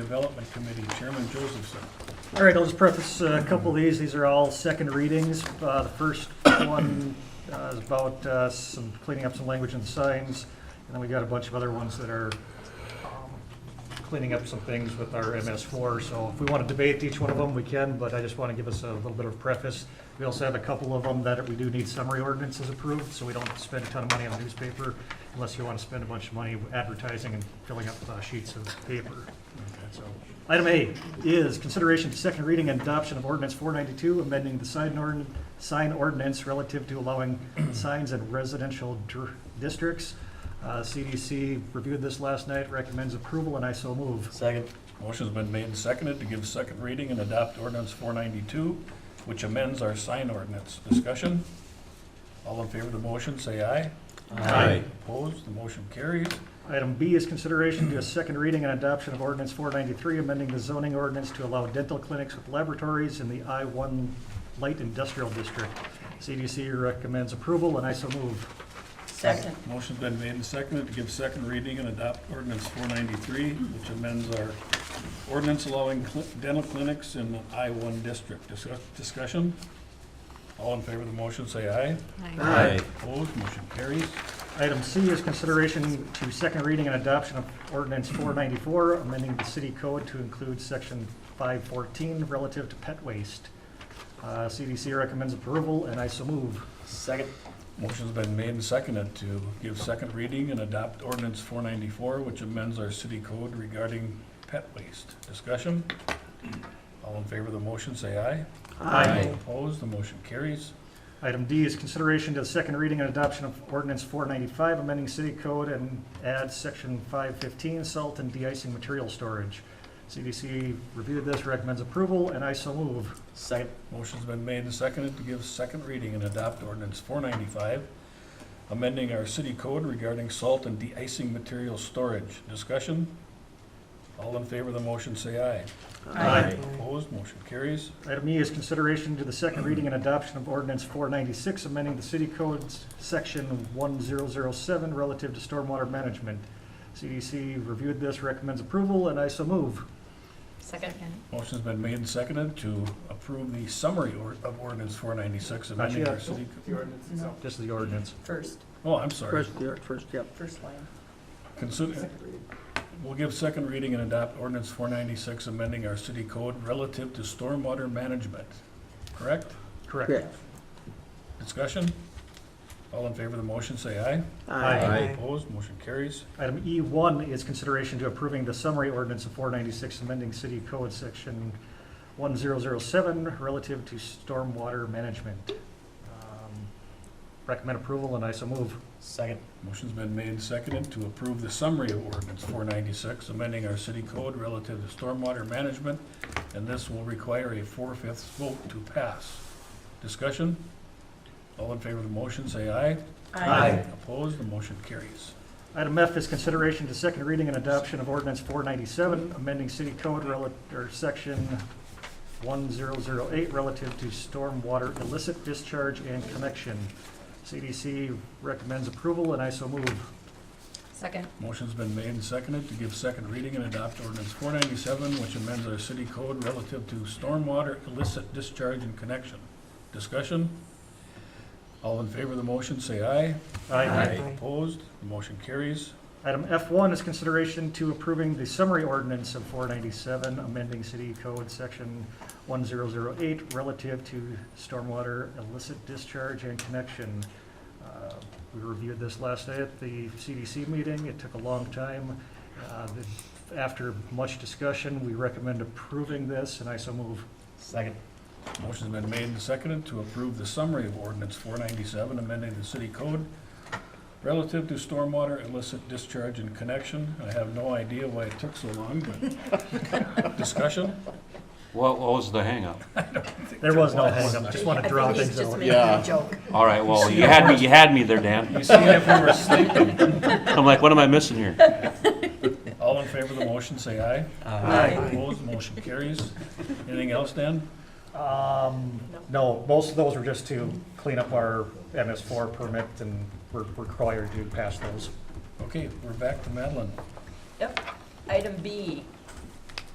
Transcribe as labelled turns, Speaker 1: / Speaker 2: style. Speaker 1: Development Committee, Chairman Josephson.
Speaker 2: All right, I'll just preface uh, a couple of these. These are all second readings. Uh, The first one uh, is about uh, some cleaning up some language in signs. And then we got a bunch of other ones that are um, cleaning up some things with our MS4. So if we want to debate each one of them, we can, but I just want to give us a little bit of preface. We also have a couple of them that we do need summary ordinances approved, so we don't spend a ton of money on newspaper unless you want to spend a bunch of money advertising and filling up uh, sheets of paper. So, Item A is consideration to second reading and adoption of ordinance four ninety-two, amending the sign ordn, sign ordinance relative to allowing signs in residential dr- districts. Uh, CDC reviewed this last night, recommends approval, and I so move.
Speaker 3: Second.
Speaker 1: Motion's been made and seconded to give second reading and adopt ordinance four ninety-two, which amends our sign ordinance. Discussion? All in favor of the motion, say aye.
Speaker 2: Aye.
Speaker 1: Opposed, the motion carries.
Speaker 2: Item B is consideration to a second reading and adoption of ordinance four ninety-three, amending the zoning ordinance to allow dental clinics with laboratories in the I one light industrial district. CDC recommends approval, and I so move.
Speaker 3: Second.
Speaker 1: Motion's been made and seconded to give second reading and adopt ordinance four ninety-three, which amends our ordinance allowing cli- dental clinics in the I one district. Discuss- Discussion? All in favor of the motion, say aye.
Speaker 3: Aye.
Speaker 1: Opposed, motion carries.
Speaker 2: Item C is consideration to second reading and adoption of ordinance 494, amending the city code to include section 514 relative to pet waste. Uh, CDC recommends approval, and I so move.
Speaker 3: Second.
Speaker 1: Motion's been made and seconded to give second reading and adopt ordinance four ninety-four, which amends our city code regarding pet waste. Discussion? All in favor of the motion, say aye.
Speaker 3: Aye.
Speaker 1: Opposed, the motion carries.
Speaker 2: Item D is consideration to second reading and adoption of ordinance 495, amending city code and add section 515, salt and de-icing material storage. CDC reviewed this, recommends approval, and I so move.
Speaker 3: Second.
Speaker 1: Motion's been made and seconded to give second reading and adopt ordinance four ninety-five, amending our city code regarding salt and de-icing material storage. Discussion? All in favor of the motion, say aye.
Speaker 2: Aye.
Speaker 1: Opposed, motion carries.
Speaker 2: Item E is consideration to the second reading and adoption of ordinance four ninety-six, amending the city codes, section one zero zero seven, relative to stormwater management. CDC reviewed this, recommends approval, and I so move.
Speaker 4: Second.
Speaker 1: Motion's been made and seconded to approve the summary or- of ordinance four ninety-six amending
Speaker 2: Not
Speaker 1: our
Speaker 2: yet.
Speaker 1: city. co-
Speaker 4: No,
Speaker 2: This is the ordinance.
Speaker 4: first,
Speaker 1: Oh, I'm sorry.
Speaker 5: First, yeah, first, yep.
Speaker 4: first line.
Speaker 1: Consider, we'll give second reading and adopt ordinance four ninety-six amending our city code relative to stormwater management. Correct?
Speaker 2: Correct.
Speaker 5: Correct.
Speaker 1: Discussion? All in favor of the motion, say aye.
Speaker 2: Aye.
Speaker 1: Opposed, motion carries.
Speaker 2: Item E one is consideration to approving the summary ordinance of four ninety-six, amending city code, section one zero zero seven, relative to stormwater management. Um, Recommend approval, and I so move.
Speaker 3: Second.
Speaker 1: Motion's been made and seconded to approve the summary of ordinance four ninety-six, amending our city code relative to stormwater management, and this will require a four-fifths vote to pass. Discussion? All in favor of the motion, say aye.
Speaker 3: Aye.
Speaker 1: Opposed, the motion carries.
Speaker 2: Item F is consideration to second reading and adoption of ordinance four ninety-seven, amending city code relative, or section one zero zero eight relative to stormwater illicit discharge and connection. CDC recommends approval, and I so move.
Speaker 4: Second.
Speaker 1: Motion's been made and seconded to give second reading and adopt ordinance four ninety-seven, which amends our city code relative to stormwater illicit discharge and connection. Discussion? All in favor of the motion, say aye. Opposed, the motion carries.
Speaker 2: Item F1 is consideration to approving the summary ordinance of 497, amending City Code Section 1008 relative to stormwater illicit discharge and connection. Uh, We reviewed this last night at the CDC meeting. It took a long time. Uh, the- After much discussion, we recommend approving this, and I so move.
Speaker 3: Second.
Speaker 1: Motion's been made and seconded to approve the summary of ordinance four ninety-seven, amending the city code relative to stormwater illicit discharge and connection. I have no idea why it took so long, but discussion?
Speaker 6: What, what was the hangup?
Speaker 2: There was no hangup, just want to draw
Speaker 4: I think
Speaker 2: things
Speaker 4: he's just
Speaker 2: out.
Speaker 4: making a joke.
Speaker 6: All right, well, you had me, you had me there,
Speaker 1: You
Speaker 6: Dan.
Speaker 1: see if we were sleeping.
Speaker 6: I'm like, what am I missing here?
Speaker 1: All in favor of the motion, say aye.
Speaker 4: Aye.
Speaker 1: Opposed, motion carries. Anything else, Dan?
Speaker 2: Um, no, most of those were just to clean up our MS4 permit, and we're we're required to pass those.
Speaker 1: Okay, we're back to Madeline.
Speaker 4: Yep. Item B,